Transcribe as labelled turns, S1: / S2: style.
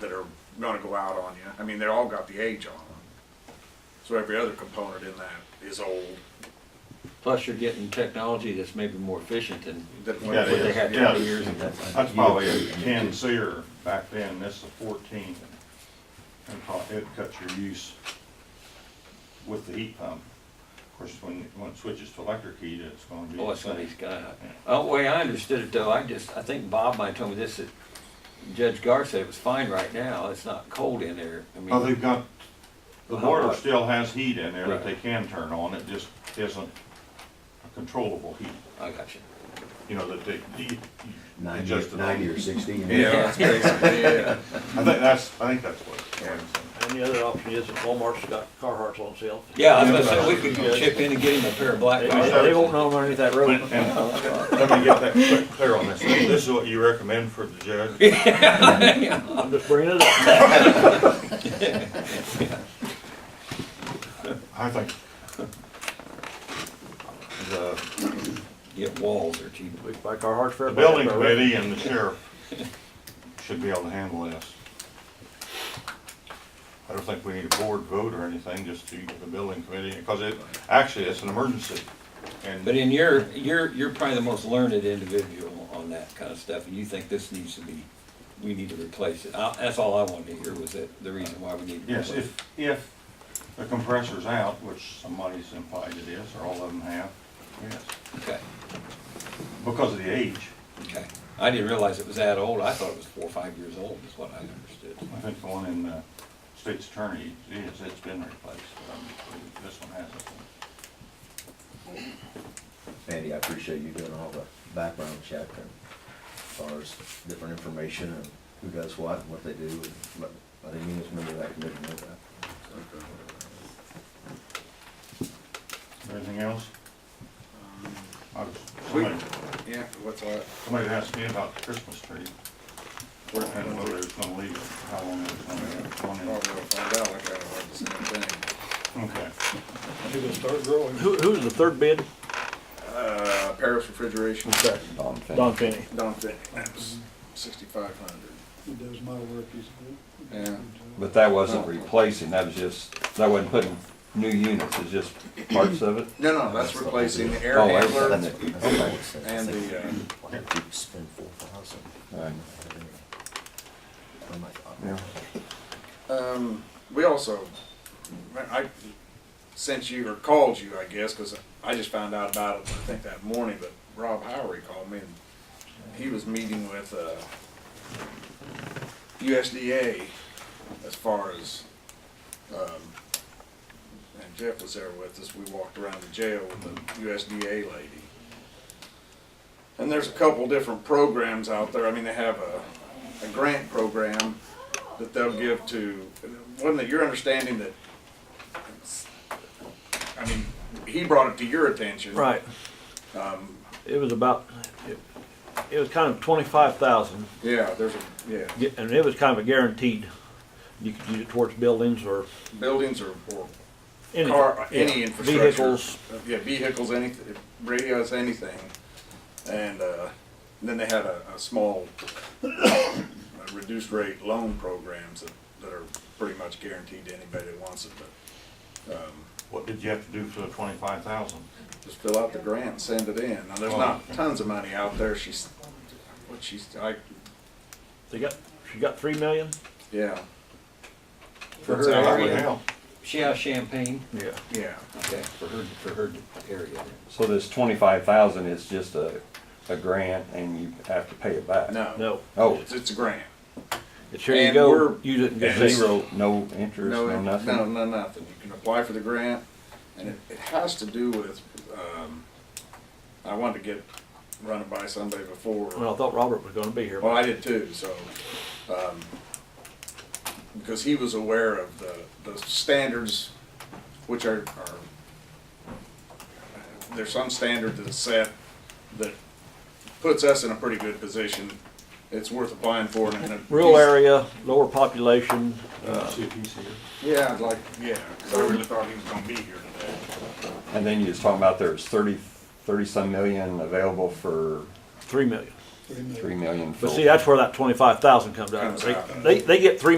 S1: that are gonna go out on you. I mean, they're all got the age on them. So every other component in that is old.
S2: Plus, you're getting technology that's maybe more efficient than
S1: That
S2: what
S1: when-
S3: Yeah, it
S2: they
S3: is.
S2: had
S3: Yeah.
S2: twenty years ago.
S3: That's probably a ten seer back then, this is a fourteen. And pro- it cuts your use with the heat pump. Of course, when, when it switches to electric heat, it's gonna be
S2: Oh,
S3: the
S2: it's gonna be
S3: same.
S2: sky high. Uh, the way I understood it though, I just, I think Bob might have told me this, that Judge Gar said it was fine right now, it's not cold in there. I
S3: Well,
S2: mean,
S3: they've got, the
S2: Well, how
S3: boiler
S2: hot?
S3: still has heat in there that they
S2: Right.
S3: can turn on, it just isn't a controllable heat,
S2: I got you.
S3: you know, that they, you- you
S4: Nine,
S3: adjust it.
S4: ninety or sixteen.
S1: Yeah, that's basically, yeah.
S3: I think that's, I think that's what.
S1: Yeah.
S5: And the other option is that Walmart's got Carhartts on sale.
S2: Yeah, I was gonna say, we could chip in and get him a pair of black
S5: They,
S2: ones.
S3: Yeah.
S5: they won't know underneath that road.
S3: And let me get that clear- clear on this, this is what you recommend for the judge?
S5: I'm just bringing it up.
S3: I think the,
S2: Get walls or cheap.
S5: We can buy Carhartts for
S3: the building
S5: everybody.
S3: committee and the sheriff should be able to handle this. I don't think we need a board vote or anything, just the, the building committee, because it, actually, it's an emergency.
S2: But
S3: And
S2: in your, you're, you're probably the most learned individual on that kind of stuff, and you think this needs to be, we need to replace it. I- That's all I wanted to hear was that, the reason why we need to
S3: yes,
S2: replace it.
S3: if, if the compressor's out, which somebody's implied it is, or all of them have, yes,
S2: Okay,
S3: because of the age,
S2: okay. I didn't realize it was that old. I thought it was four or five years old is what I understood.
S3: I think the one in the state's attorney is, it's been replaced, um, this one hasn't.
S4: Andy, I appreciate you doing all the background check and as far as different information and who does what and what they do. and But I didn't even remember that committee knew that.
S3: Anything else? I was-
S1: We-
S3: Uh, Somebody,
S1: Yeah, what's that?
S3: somebody asked me about the Christmas tree, and whether it's gonna leave, it, how long it's gonna be on
S1: Probably we'll
S3: it.
S1: find out, I kinda heard the same thing.
S3: Okay,
S5: Who, who's the third bid?
S1: Uh, Paris Refrigeration,
S4: Don Fink.
S5: Don Finney.
S1: Don Finney, that was sixty-five hundred.
S6: He does my work, he's a good.
S1: Yeah.
S7: But that wasn't replacing, that was just, that wasn't putting new units, it's just parts of it?
S1: No, no, that's replacing the air
S7: Oh, air
S1: handler
S4: That's it. That's what I would say.
S1: and the, uh,
S4: Why did you spend four thousand?
S7: Right.
S4: Oh my God.
S1: Um, we also, I I sent you or called you, I guess, because I just found out about it, I think that morning, but Rob Howery called me and he was meeting with, uh, USDA as far as, um, and Jeff was there with us, we walked around the jail with the USDA lady. And there's a couple different programs out there, I mean, they have a, a grant program that they'll give to, wasn't it your understanding that, I mean, he brought it to your attention.
S5: Right.
S1: Um,
S5: It was about, it, it was kind of twenty-five thousand,
S1: yeah, there's a, yeah,
S5: and it was kind of a guaranteed. You could use it towards buildings or
S1: buildings or, or
S5: anything.
S1: car, uh, any
S5: Yeah.
S1: infrastructure.
S5: Vehicles,
S1: Yeah, vehicles, anything, radios, anything. And, uh, then they had a, a small uh, reduced rate loan programs that, that are pretty much guaranteed to anybody that wants it, but, um,
S3: what did you have to do for the twenty-five thousand?
S1: just fill out the grant and send it in. Now, there's
S5: Oh.
S1: not tons of money out there. She's, what she's, I,
S5: they got, she got three million?
S1: yeah,
S2: For
S1: That's
S2: her
S1: how I
S3: That would
S2: area,
S3: help.
S2: she has champagne,
S5: Yeah.
S1: yeah.
S2: okay, for her, for her area.
S7: So this twenty-five thousand is just a, a grant and you have to pay it back?
S1: No.
S5: No,
S7: Oh,
S1: It's, it's a grant.
S5: it's here you
S1: And
S5: go,
S1: we're-
S5: use it and get
S1: and-
S5: it.
S7: zero, no interest,
S1: No,
S7: no
S1: it-
S7: nothing?
S1: no, no, nothing. You can apply for the grant and it, it has to do with, um, I wanted to get, run it by somebody before.
S5: Well, I thought Robert was gonna be here.
S1: Well, I did too, so, um, because he was aware of the, the standards, which are, are, there's some standard that's set that puts us in a pretty good position. It's worth applying for and. and-
S5: Rural area, lower population,
S3: Uh, See if he's here.
S1: Yeah, I'd like, yeah, 'cause I really thought he was gonna be here today.
S7: And then you was talking about there's thirty, thirty-some million available for
S5: three million.
S6: three million.
S7: three million.
S5: But
S7: for-
S5: see, that's where that twenty-five thousand comes out.
S1: Comes
S5: They,
S1: out.
S5: they, they get three